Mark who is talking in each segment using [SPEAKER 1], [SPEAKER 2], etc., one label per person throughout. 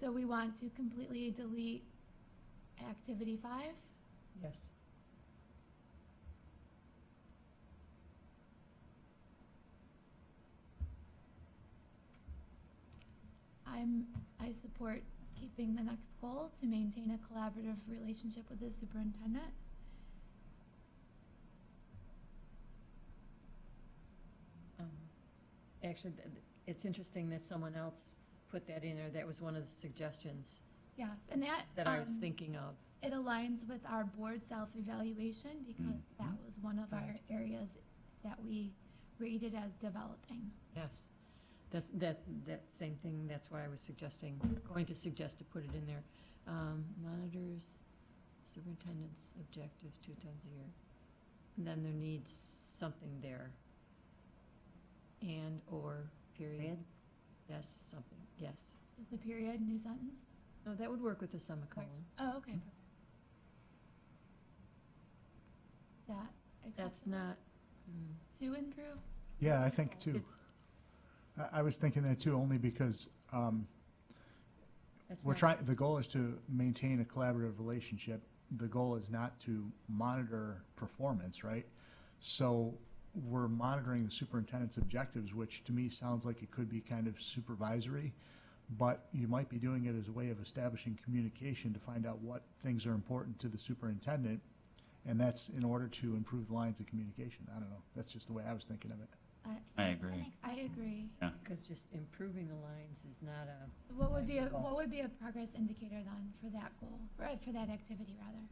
[SPEAKER 1] So we want to completely delete activity five?
[SPEAKER 2] Yes.
[SPEAKER 1] I'm, I support keeping the next goal to maintain a collaborative relationship with the superintendent.
[SPEAKER 2] Um, Actually, th- th- it's interesting that someone else put that in there. That was one of the suggestions
[SPEAKER 1] Yes, and that,
[SPEAKER 2] that I was
[SPEAKER 1] um,
[SPEAKER 2] thinking of.
[SPEAKER 1] It aligns with our board self-evaluation because
[SPEAKER 2] Mm-hmm.
[SPEAKER 1] that was one of our
[SPEAKER 2] Right.
[SPEAKER 1] areas that we rated as developing.
[SPEAKER 2] Yes. That's, that, that same thing, that's why I was suggesting, going to suggest to put it in there. Um, Monitors superintendent's objectives two times a year. And Then there needs something there. And/or period.
[SPEAKER 3] Period.
[SPEAKER 2] Yes, something, yes.
[SPEAKER 1] Just a period, new sentence?
[SPEAKER 2] No, that would work with the semicolon.
[SPEAKER 1] Oh, okay.
[SPEAKER 2] Mm-hmm.
[SPEAKER 1] perfect. That,
[SPEAKER 2] That's
[SPEAKER 1] acceptable
[SPEAKER 2] not, mm.
[SPEAKER 1] to improve?
[SPEAKER 4] Yeah, I think too.
[SPEAKER 2] It's-
[SPEAKER 4] I, I was thinking that too, only because um,
[SPEAKER 2] that's
[SPEAKER 4] we're
[SPEAKER 2] not-
[SPEAKER 4] trying. The goal is to maintain a collaborative relationship. The goal is not to monitor performance, right? So we're monitoring the superintendent's objectives, which to me sounds like it could be kind of supervisory, but you might be doing it as a way of establishing communication to find out what things are important to the superintendent, and that's in order to improve the lines of communication. I don't know. That's just the way I was thinking of it.
[SPEAKER 5] I agree.
[SPEAKER 1] I agree.
[SPEAKER 2] Because just improving the lines is not a,
[SPEAKER 1] So what would be, a
[SPEAKER 2] Measurable.
[SPEAKER 1] what would be a progress indicator then for that goal, or uh, for that activity rather?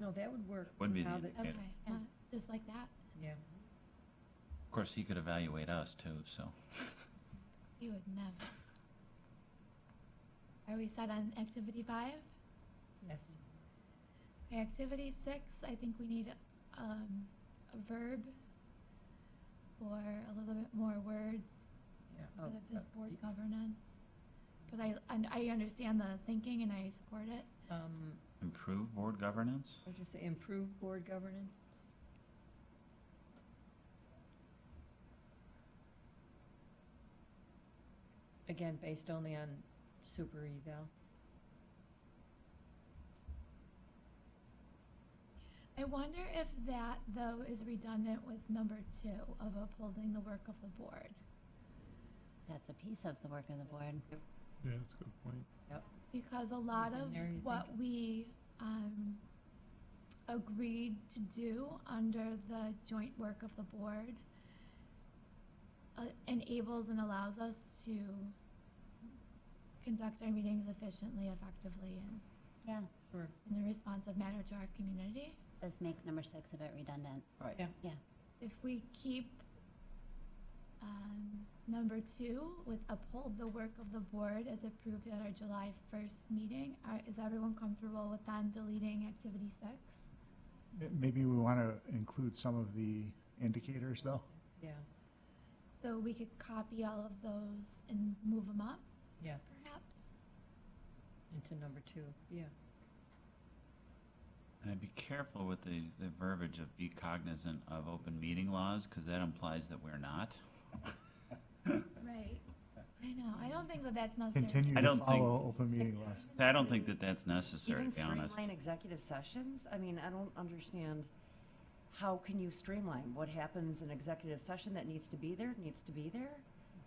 [SPEAKER 2] no, that would work.
[SPEAKER 5] Would be the
[SPEAKER 2] how the-
[SPEAKER 5] Yeah.
[SPEAKER 1] Okay, mon- just like that,
[SPEAKER 2] Yeah.
[SPEAKER 5] Of course, he could evaluate us too, so.
[SPEAKER 1] you would never. Are we set on activity five?
[SPEAKER 2] Yes.
[SPEAKER 1] Okay, activity six, I think we need, um, a verb or a little bit more words
[SPEAKER 2] Yeah. Oh,
[SPEAKER 1] instead of just
[SPEAKER 2] uh,
[SPEAKER 1] board governance. But I, and I understand the thinking and I support it.
[SPEAKER 2] Um,
[SPEAKER 5] Improve board governance?
[SPEAKER 2] what did you say, improve board governance? Again, based only on super eval.
[SPEAKER 1] I wonder if that, though, is redundant with number two of upholding the work of the board.
[SPEAKER 3] That's a piece of the work of the board.
[SPEAKER 6] Yeah, that's a good point.
[SPEAKER 1] Because a lot
[SPEAKER 2] in
[SPEAKER 1] of
[SPEAKER 2] there, you
[SPEAKER 1] what we, um, agreed to do under the joint work of the board uh, enables and allows us to conduct our meetings efficiently, effectively, and
[SPEAKER 3] Yeah,
[SPEAKER 2] Sure.
[SPEAKER 1] in a responsive manner to our community.
[SPEAKER 3] does make number six a bit redundant.
[SPEAKER 2] Right. Yeah.
[SPEAKER 1] if we keep um, number two with uphold the work of the board as approved at our July 1st meeting, are, is everyone comfortable with then deleting activity six?
[SPEAKER 4] Maybe we want to include some of the indicators, though.
[SPEAKER 2] Yeah,
[SPEAKER 1] So we could copy all of those and move them up,
[SPEAKER 2] yeah,
[SPEAKER 1] perhaps?
[SPEAKER 2] into number two, yeah.
[SPEAKER 5] And I'd be careful with the, the verbiage of be cognizant of open meeting laws, because that implies that we're not.
[SPEAKER 1] Right. I know, I don't think that that's necessary.
[SPEAKER 4] Continue
[SPEAKER 5] I
[SPEAKER 4] to
[SPEAKER 5] don't think-
[SPEAKER 4] follow open meeting laws.
[SPEAKER 5] I don't think that that's necessary,
[SPEAKER 7] Even
[SPEAKER 5] to be honest.
[SPEAKER 7] streamline executive sessions? I mean, I don't understand, how can you streamline? What happens in executive session that needs to be there, needs to be there?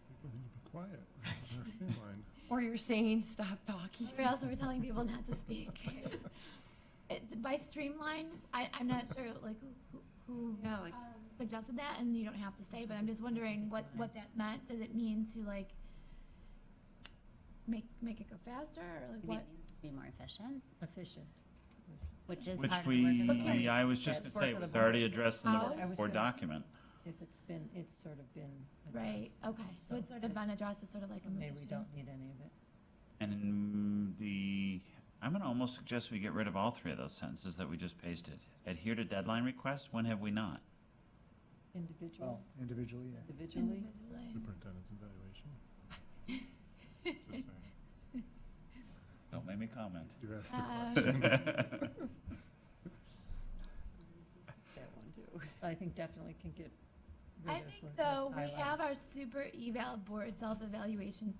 [SPEAKER 6] People need to be quiet. They're feline.
[SPEAKER 7] Or you're saying, stop talking?
[SPEAKER 1] Or else we're telling people not to speak. It's by streamline, I, I'm not sure, like, who, who
[SPEAKER 7] Yeah, like-
[SPEAKER 1] um, suggested that, and you don't have to say, but I'm just wondering what, what that meant. Does it mean to like, make, make it go faster, or like
[SPEAKER 3] Maybe
[SPEAKER 1] what?
[SPEAKER 3] it needs to be more efficient,
[SPEAKER 2] Efficient. was-
[SPEAKER 3] which is
[SPEAKER 5] Which
[SPEAKER 3] part of the work of the board.
[SPEAKER 5] we, I was just
[SPEAKER 2] Yeah,
[SPEAKER 5] gonna say,
[SPEAKER 7] work
[SPEAKER 5] it
[SPEAKER 7] of
[SPEAKER 5] was
[SPEAKER 7] the board.
[SPEAKER 5] already addressed in
[SPEAKER 1] How?
[SPEAKER 2] I
[SPEAKER 5] the
[SPEAKER 2] was
[SPEAKER 5] board
[SPEAKER 2] gonna-
[SPEAKER 5] document.
[SPEAKER 2] If it's been, it's sort of been
[SPEAKER 1] Right,
[SPEAKER 2] addressed.
[SPEAKER 1] okay, so it's sort of been addressed, it's sort of like a
[SPEAKER 2] Maybe we
[SPEAKER 1] mission.
[SPEAKER 2] don't need any of it.
[SPEAKER 5] And in the, I'm gonna almost suggest we get rid of all three of those sentences that we just pasted. Adhere to deadline request, when have we not?
[SPEAKER 4] Well,
[SPEAKER 2] Individual,
[SPEAKER 4] individually,
[SPEAKER 2] Oh.
[SPEAKER 4] yeah.
[SPEAKER 2] individually?
[SPEAKER 1] Individually.
[SPEAKER 6] Superintendent's evaluation. Just saying.
[SPEAKER 5] Don't make me comment.
[SPEAKER 6] Do ask the
[SPEAKER 1] Uh,
[SPEAKER 6] question.
[SPEAKER 7] That one too.
[SPEAKER 2] I think definitely can get rid
[SPEAKER 1] I
[SPEAKER 2] of
[SPEAKER 1] think
[SPEAKER 2] what-
[SPEAKER 1] though,
[SPEAKER 2] what's
[SPEAKER 1] we
[SPEAKER 2] highlighted.
[SPEAKER 1] have our super eval board self-evaluation